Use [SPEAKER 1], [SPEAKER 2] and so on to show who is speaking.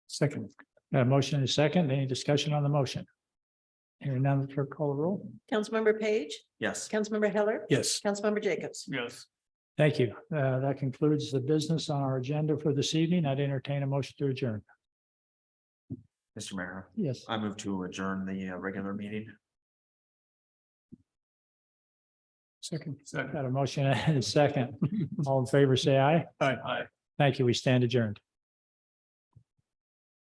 [SPEAKER 1] Second. Got a motion and a second. Any discussion on the motion? Hearing none, clerk call the roll.
[SPEAKER 2] Councilmember Page,
[SPEAKER 3] Yes.
[SPEAKER 2] Councilmember Heller,
[SPEAKER 1] Yes.
[SPEAKER 2] Councilmember Jacobs.
[SPEAKER 3] Yes.
[SPEAKER 1] Thank you. Uh, that concludes the business on our agenda for this evening. I'd entertain a motion to adjourn.
[SPEAKER 3] Mr. Mayor,
[SPEAKER 1] Yes.
[SPEAKER 3] I move to adjourn the uh, regular meeting.
[SPEAKER 1] Second.
[SPEAKER 3] Second.
[SPEAKER 1] Got a motion and a second. All in favor, say aye.
[SPEAKER 3] Aye.
[SPEAKER 1] Thank you. We stand adjourned.